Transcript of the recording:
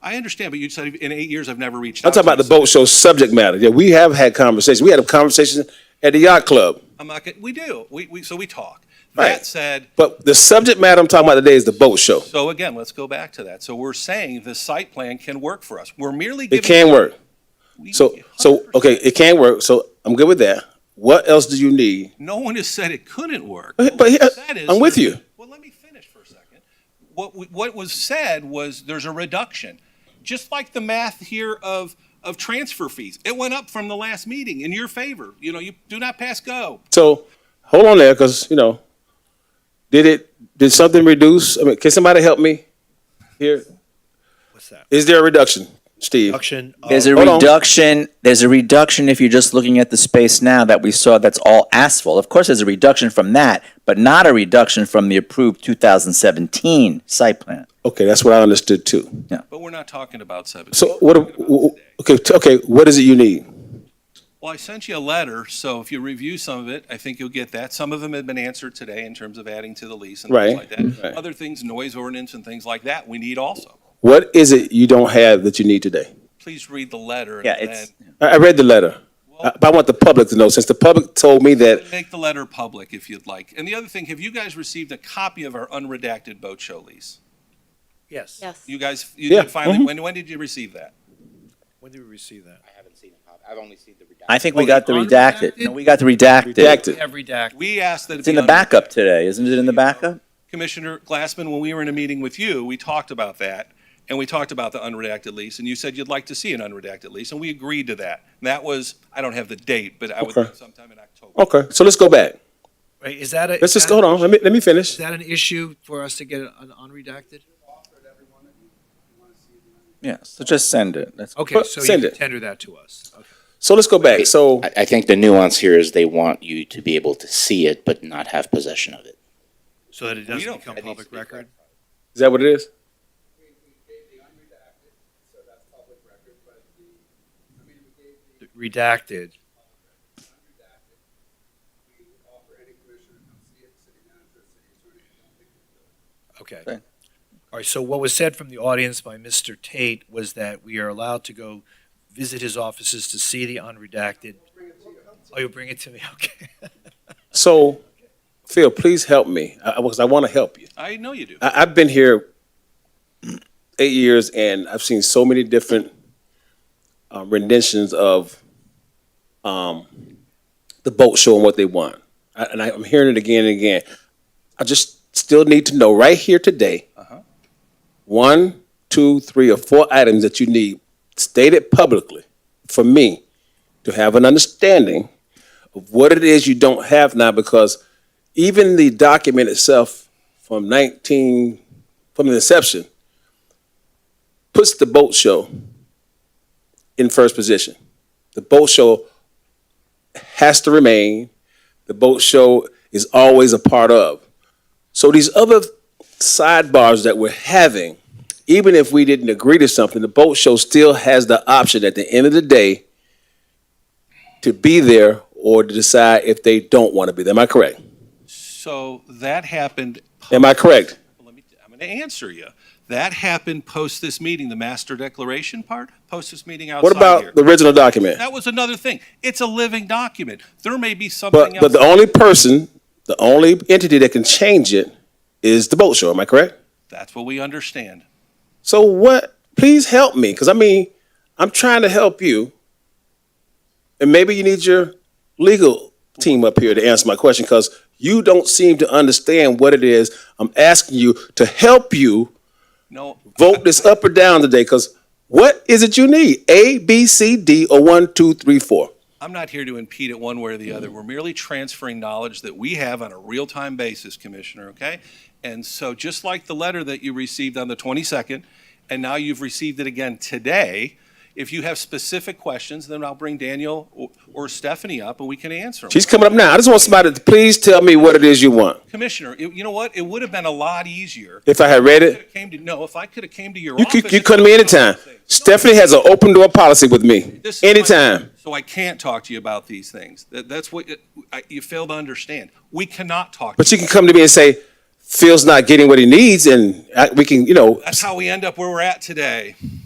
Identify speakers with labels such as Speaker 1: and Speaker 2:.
Speaker 1: I understand, but you said in eight years, I've never reached out.
Speaker 2: I'm talking about the boat show subject matter. Yeah, we have had conversations. We had a conversation at the yacht club.
Speaker 1: I'm not, gonna- we do, we, we, so we talk.
Speaker 2: Right.
Speaker 1: That said,
Speaker 2: But the subject matter I'm talking about today is the boat show.
Speaker 1: so again, let's go back to that. So we're saying the site plan can work for us. We're merely giving.
Speaker 2: It can work.
Speaker 1: We-
Speaker 2: So, so, okay, it can work. So I'm good with that. What else do you need?
Speaker 1: No one has said it couldn't work.
Speaker 2: But-
Speaker 1: What
Speaker 2: but here-
Speaker 1: was said is
Speaker 2: I'm with
Speaker 1: there's-
Speaker 2: you.
Speaker 1: Well, let me finish for a second. What, we- what was said was there's a reduction, just like the math here of, of transfer fees. It went up from the last meeting in your favor. You know, you do not pass go.
Speaker 2: So hold on there, because, you know, did it, did something reduce? I mean, can somebody help me here?
Speaker 3: What's that?
Speaker 2: Is there a reduction, Steve?
Speaker 3: Reduction of-
Speaker 4: There's a
Speaker 2: Hold on.
Speaker 4: reduction, there's a reduction if you're just looking at the space now that we saw that's all asphalt. Of course, there's a reduction from that, but not a reduction from the approved 2017 site plan.
Speaker 2: Okay, that's what I understood too.
Speaker 1: But we're not talking about seven.
Speaker 2: So what,
Speaker 1: We're talking about
Speaker 2: w- okay, t- okay, what is it you need?
Speaker 1: Well, I sent you a letter, so if you review some of it, I think you'll get that. Some of them have been answered today in terms of adding to the lease and
Speaker 2: Right,
Speaker 1: things like that.
Speaker 4: Mm-hmm.
Speaker 2: right.
Speaker 1: Other things, noise ordinance and things like that, we need also.
Speaker 2: What is it you don't have that you need today?
Speaker 1: Please read the letter. and
Speaker 4: Yeah, it's,
Speaker 1: then-
Speaker 2: I, I read the letter, Uh, but I want the public to know, since the public told me that,
Speaker 1: Make the letter public if you'd like. And the other thing, have you guys received a copy of our unredacted boat show lease?
Speaker 3: Yes.
Speaker 5: Yes.
Speaker 1: You guys, you
Speaker 2: Yeah,
Speaker 1: did
Speaker 4: Mm-hmm.
Speaker 1: finally, when, when did you receive that?
Speaker 3: When did we receive that?
Speaker 6: I haven't seen a copy. I've only seen the redaction.
Speaker 4: I think we got the redacted. No, we got the redacted.
Speaker 2: redacted.
Speaker 7: Every DAC.
Speaker 1: We asked that. it
Speaker 4: It's in
Speaker 1: be
Speaker 4: the backup today, isn't it in the backup?
Speaker 1: Commissioner Glassman, when we were in a meeting with you, we talked about that, and we talked about the unredacted lease, and you said you'd like to see an unredacted lease, and we agreed to that. And that was, I don't have the date, but I would
Speaker 2: Okay.
Speaker 1: think sometime in October.
Speaker 2: Okay, so let's go back.
Speaker 3: Right, is that a?
Speaker 2: Let's just, hold on, let me, let me
Speaker 3: Is
Speaker 2: finish.
Speaker 3: that an issue for us to get an unredacted?
Speaker 4: Yeah, so just send it. That's
Speaker 3: Okay,
Speaker 2: Well,
Speaker 3: so you
Speaker 2: send
Speaker 3: can
Speaker 2: it.
Speaker 3: tender that to us. Okay.
Speaker 2: So let's go back, so,
Speaker 6: I, I think the nuance here is they want you to be able to see it, but not have possession of it.
Speaker 3: So that it
Speaker 1: We
Speaker 3: doesn't
Speaker 1: don't-
Speaker 3: become
Speaker 6: That needs to
Speaker 3: public
Speaker 6: be
Speaker 3: record?
Speaker 2: is that what it is?
Speaker 3: Redacted. Okay.
Speaker 4: Okay.
Speaker 3: All right, so what was said from the audience by Mr. Tate was that we are allowed to go visit his offices to see the unredacted. Oh, you'll bring it to me, okay.
Speaker 2: So, Phil, please help me, I, I- because I want to help you.
Speaker 1: I know you do.
Speaker 2: I, I've been here eight years and I've seen so many different uh, renditions of um, the boat show and what they want. I, and I, I'm hearing it again and again. I just still need to know right here today one, two, three, or four items that you need stated publicly for me to have an understanding of what it is you don't have now because even the document itself from 19 from the inception puts the boat show in first position the boat show has to remain the boat show is always a part of so these other sidebars that we're having even if we didn't agree to something the boat show still has the option at the end of the day to be there or to decide if they don't want to be there am i correct
Speaker 1: So that happened.
Speaker 2: am i correct
Speaker 1: Let me, I'm going to answer you. That happened post this meeting, the master declaration part, post this meeting outside
Speaker 2: What
Speaker 1: here.
Speaker 2: about the original document?
Speaker 1: That was another thing. It's a living document. There may be
Speaker 2: But,
Speaker 1: something
Speaker 2: but
Speaker 1: else.
Speaker 2: the only person, the only entity that can change it is the boat show, am I correct?
Speaker 1: That's what we understand.
Speaker 2: So what, please help me, because I mean, I'm trying to help you. And maybe you need your legal team up here to answer my question, because you don't seem to understand what it is. I'm asking you to help you
Speaker 1: No.
Speaker 2: vote this up or down today, because what is it you need? A, B, C, D, or one, two, three, four?
Speaker 1: I'm not here to impede it one way or the other.
Speaker 2: Mm.
Speaker 1: We're merely transferring knowledge that we have on a real-time basis, Commissioner, okay? And so just like the letter that you received on the 22nd, and now you've received it again today, if you have specific questions, then I'll bring Daniel or- or Stephanie up and we can answer them.
Speaker 2: She's coming up now. I just want somebody to please tell me what it is you want.
Speaker 1: Commissioner, it- you know what? It would have been a lot easier.
Speaker 2: If I had read it,
Speaker 1: If I Came to, no, if I could have came to your
Speaker 2: You
Speaker 1: office.
Speaker 2: could, you
Speaker 1: and-
Speaker 2: come to me anytime. Stephanie has an open door policy with me.
Speaker 1: This is my-
Speaker 2: Anytime.
Speaker 1: So I can't talk to you about these things. That, that's what, it- I- you fail to understand. We cannot talk.
Speaker 2: But you can come to me and say, Phil's not getting what he needs and I, we can, you know,
Speaker 1: That's how we end up where we're at today.